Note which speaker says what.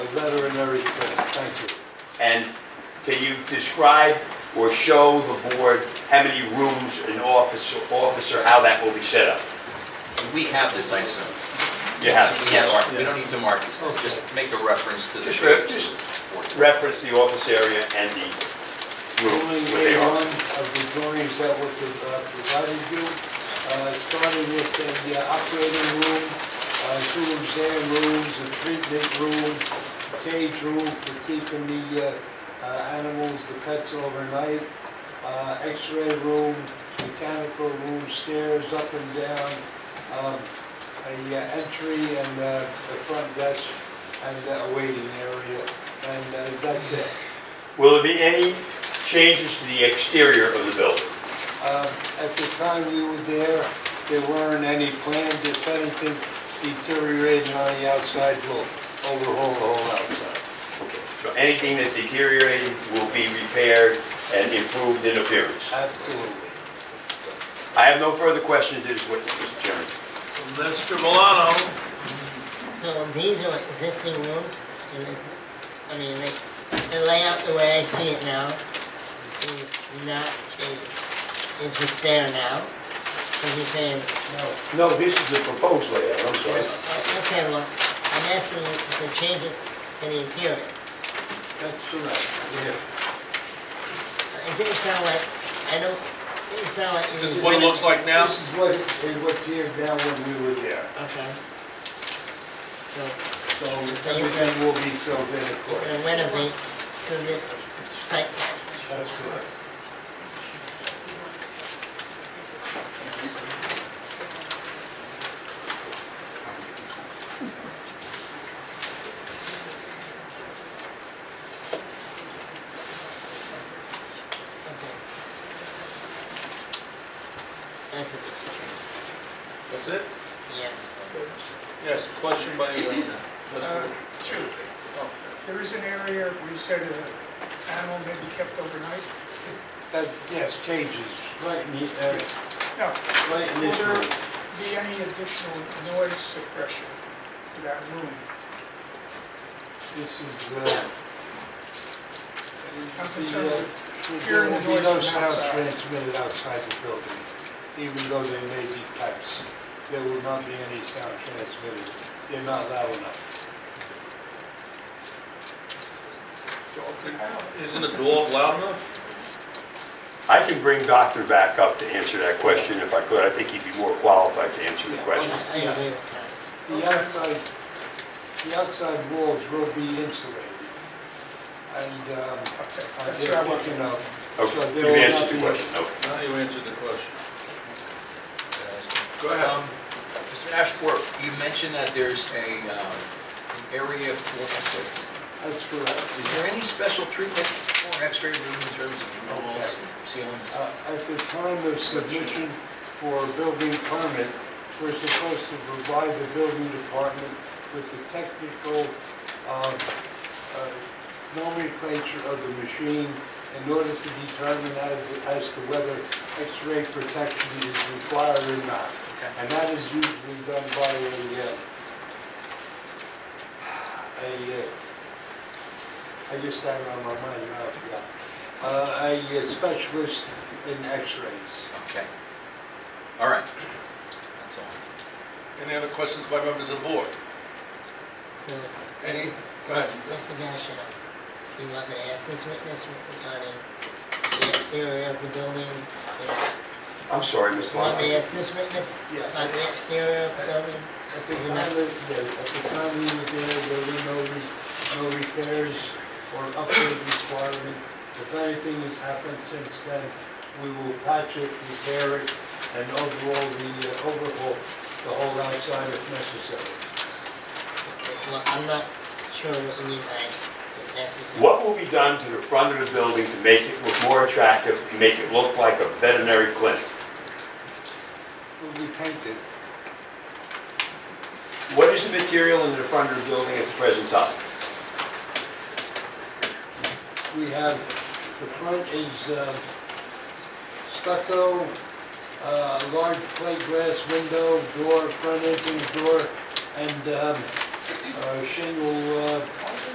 Speaker 1: better in every respect, thank you.
Speaker 2: And can you describe or show the board how many rooms an officer, officer, how that will be set up?
Speaker 3: We have this ISO.
Speaker 2: You have
Speaker 3: We have our, we don't need to mark this, just make a reference to the.
Speaker 2: Just re- just reference the office area and the
Speaker 1: Only
Speaker 2: rooms where
Speaker 1: way
Speaker 2: they
Speaker 1: one
Speaker 2: are.
Speaker 1: of the drawings that were pro- uh, provided you, uh, starting with the uh, operating room, uh, two exam rooms, a treatment room, cage room for keeping the uh, uh, animals, the pets overnight, uh, x-ray room, mechanical room, stairs up and down, um, a uh, entry and uh, a front desk and a waiting area, and uh, that's it.
Speaker 2: Will there be any changes to the exterior of the building?
Speaker 1: Um, At the time we were there, there weren't any plans, if anything deteriorated on the outside, we'll overhaul the whole outside.
Speaker 2: So anything that's deteriorated will be repaired and improved in appearance?
Speaker 1: Absolutely.
Speaker 2: I have no further questions to this witness, Mr. Chairman.
Speaker 4: Mr. Milano,
Speaker 5: So these are existing rooms, there is, I mean, they, the layout, the way I see it now, is not, is, is what's there now. Because you're saying,
Speaker 2: No, this is the proposed layout, I'm
Speaker 5: well, okay, well, I'm asking you if there changes to the interior.
Speaker 1: That's correct. Yeah.
Speaker 5: It didn't sound like, I don't, it didn't sound like.
Speaker 4: this is what it looks like now?
Speaker 1: This is what, is what's here now when we were there.
Speaker 5: Okay. So,
Speaker 1: So
Speaker 5: So you-
Speaker 1: everything will be filled in
Speaker 5: you're
Speaker 1: accordingly.
Speaker 5: gonna renovate to this site plan.
Speaker 1: That's correct.
Speaker 5: Okay. That's a good
Speaker 4: That's it?
Speaker 5: Yeah.
Speaker 4: Yes, question by
Speaker 6: Uh,
Speaker 4: the...
Speaker 6: Two, Oh, there is an area where you said an animal may be kept overnight?
Speaker 1: That, yes, cages, right in the, uh,
Speaker 6: No.
Speaker 1: right in
Speaker 6: Will
Speaker 1: this
Speaker 6: there
Speaker 1: room.
Speaker 6: be any additional noise suppression for that room?
Speaker 1: This is, uh,
Speaker 6: I'm
Speaker 1: the,
Speaker 6: concerned
Speaker 1: uh,
Speaker 6: with
Speaker 1: There will be no sound transmitted outside the building, even though they may be pets. There will not be any sound transmitted. They're not loud enough.
Speaker 4: Isn't the door loud enough?
Speaker 2: I can bring Doctor back up to answer that question if I could. I think he'd be more qualified to answer the question.
Speaker 5: I I agree with Council.
Speaker 1: The outside, the outside walls will be insulated. And, um, uh,
Speaker 6: Okay, that's what
Speaker 1: they're
Speaker 6: I want to
Speaker 1: picking
Speaker 6: know.
Speaker 1: up.
Speaker 2: Okay,
Speaker 1: So there will
Speaker 2: you've
Speaker 1: not
Speaker 2: answered the
Speaker 1: be-
Speaker 2: question, okay.
Speaker 4: Now you answered the question. Go ahead.
Speaker 3: Um, Mr. Ashworth, you mentioned that there's a, um, an area for X-rays.
Speaker 1: That's correct.
Speaker 3: Is there any special treatment for an X-ray room in terms of walls, ceilings?
Speaker 1: Uh, At the time of submission for a building permit, we're supposed to provide the building department with the technical um, uh, nomenclature of the machine in order to determine as- as to whether X-ray protection is required or not. And that is usually done by a, uh, a, uh, I just had it on my mind, now I forgot. Uh, A uh, specialist in X-rays.
Speaker 3: Okay. All right. That's all.
Speaker 4: Any other questions by members of the board?
Speaker 5: So,
Speaker 4: Any?
Speaker 5: Mr.
Speaker 4: Go ahead.
Speaker 5: Mr. Gassion, you want me to ask this witness regarding the exterior of the building? You know,
Speaker 2: I'm sorry, Ms.
Speaker 5: You want me to
Speaker 2: Blanco.
Speaker 5: ask this witness
Speaker 1: Yeah.
Speaker 5: on the exterior of the building?
Speaker 1: At the time, of- yeah, at the time we were there, there were no, re- no repairs or upgrade requirement. If anything has happened since then, we will patch it, repair it, and overall, the uh, overhaul, the whole outside if necessary.
Speaker 5: Well, I'm not sure what you mean by necessary.
Speaker 2: What will be done to the front of the building to make it look more attractive, to make it look like a veterinary clinic?
Speaker 1: Will be painted.
Speaker 2: What is the material in the front of the building at the present time?
Speaker 1: We have, the front is uh, stucco, uh, large plate glass window, door, front entrance door, and um, uh, shingle uh,